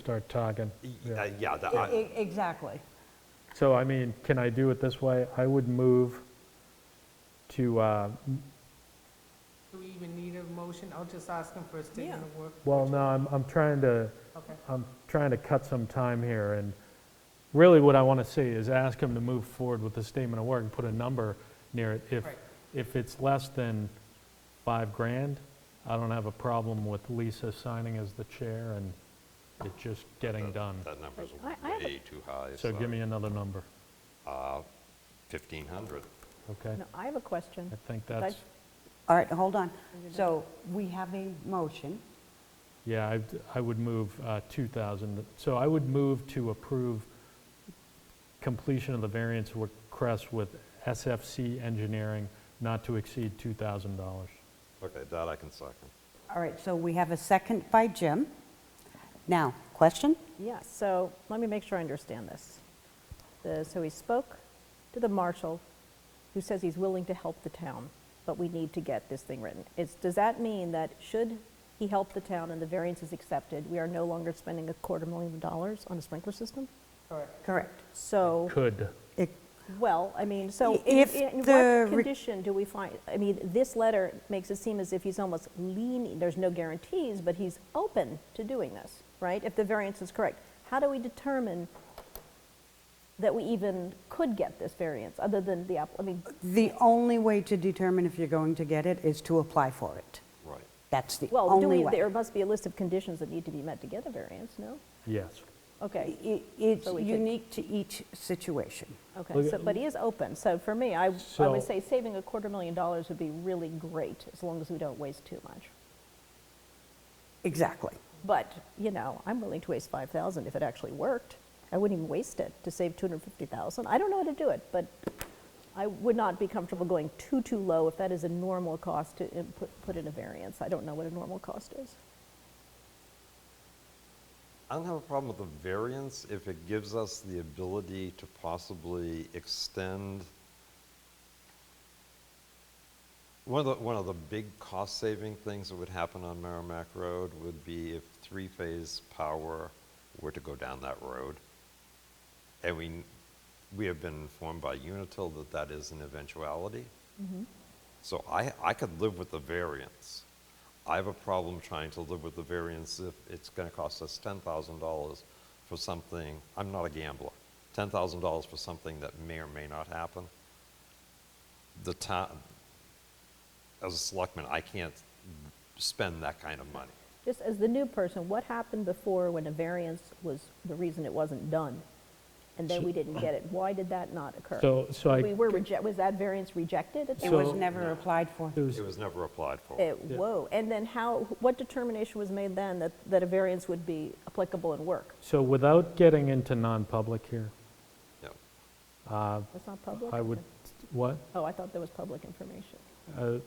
start talking. Y- Yeah. uh, Yeah, the- E- I- e- Exactly. So I mean, can I do it this way? I would move to, uh, Do we even need a motion? I'll just ask him for a statement of work. well, no, I'm, I'm trying to, Okay. I'm trying to cut some time here, and really what I want to see is ask him to move forward with the statement of work and put a number near it. If, Right. if it's less than five grand, I don't have a problem with Lisa signing as the chair and it just Uh, getting done. that number's I- I have a- way too high. uh, So give me another number, 1,500. okay? No, I have a question. I think that's, All right, hold on. So we have a motion. yeah, I, I would move uh, 2,000. So I would move to approve completion of the variance request with SFC Engineering not to exceed $2,000. Okay, that I can second. All right, so we have a second by Jim. Now, question? Yeah, so let me make sure I understand this. The- So he spoke to the marshal, who says he's willing to help the town, but we need to get this thing written. It's, does that mean that should he help the town and the variance is accepted, we are no longer spending a quarter million dollars on a sprinkler system? Correct. Correct. So, Could. well, I mean, so in- If in the what re- condition do we find, I mean, this letter makes it seem as if he's almost leaning, there's no guarantees, but he's open to doing this, right? If the variance is correct. How do we determine that we even could get this variance, other than the, app- I mean, The only way to determine if you're going to get it is to apply for it. Right. That's the well, do only we, way. there must be a list of conditions that need to be met to get a variance, no? Yes. Okay, I- It's So we could- unique to each situation. okay, Look so, at- but he is open, so for me, I, I So- would say saving a quarter million dollars would be really great, as long as we don't waste too much. Exactly. But, you know, I'm willing to waste 5,000 if it actually worked. I wouldn't even waste it to save 250,000. I don't know how to do it, but I would not be comfortable going too, too low if that is a normal cost to in- put put in a variance. I don't know what a normal cost is. I don't have a problem with the variance if it gives us the ability to possibly extend. One of the, one of the big cost-saving things that would happen on Merrimack Road would be if three-phase power were to go down that road. And we, we have been informed by Unitil that that is an eventuality. So I, I could live with the variance. I have a problem trying to live with the variance if it's going to cost us $10,000 for something, I'm not a gambler, $10,000 for something that may or may not happen. The town, as a selectman, I can't spend that kind of money. Just as the new person, what happened before when a variance was the reason it wasn't done? And then we didn't get it. Why did that not occur? So- so I- We were reject, was that variance rejected at the It was So- never applied for. It was never applied for. It, whoa, and then how, what determination was made then that, that a variance would be applicable and work? So without getting into non-public here, No. That's not public? I would, what? Oh, I thought there was public information.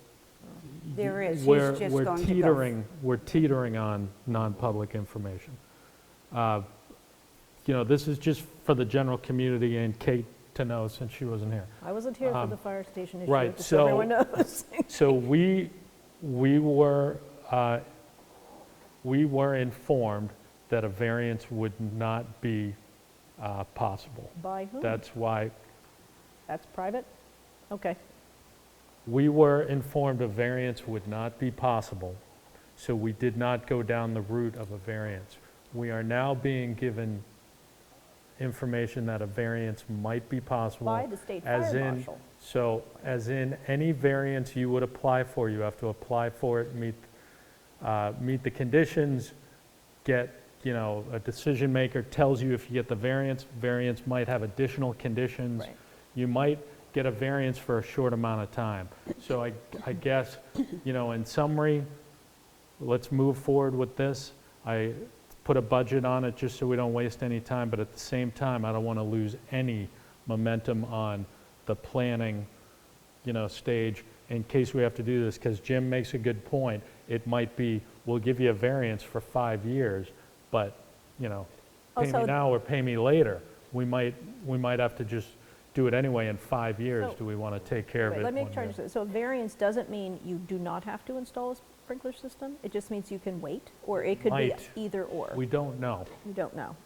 There is, he's We're- just going to go. We're teetering, we're teetering on non-public information. Uh, You know, this is just for the general community and Kate to know since she wasn't here. I wasn't here for the fire station issue, Um, right, just so everyone so- knows. So we, we were, uh, we were informed that a variance would not be uh, possible. By whom? That's why That's private? Okay, We were informed a variance would not be possible, so we did not go down the route of a variance. We are now being given information that a variance might be possible. By the state as fire in- marshal. So, as in, any variance you would apply for, you have to apply for it, meet, uh, meet the conditions, get, you know, a decision maker tells you if you get the variance, variance might have additional conditions. Right. You might get a variance for a short amount of time. So I, I guess, you know, in summary, let's move forward with this. I put a budget on it just so we don't waste any time, but at the same time, I don't want to lose any momentum on the planning, you know, stage in case we have to do this, because Jim makes a good point. It might be, we'll give you a variance for five years, but, you know, pay me Also- now or pay me later. We might, we might have to just do it anyway in five years. So- Do we want to take care of Wait, it? let me one try year? to, so a variance doesn't mean you do not have to install a s- sprinkler system. It just means you can wait, or it could be Might. either or. We don't know. You don't know.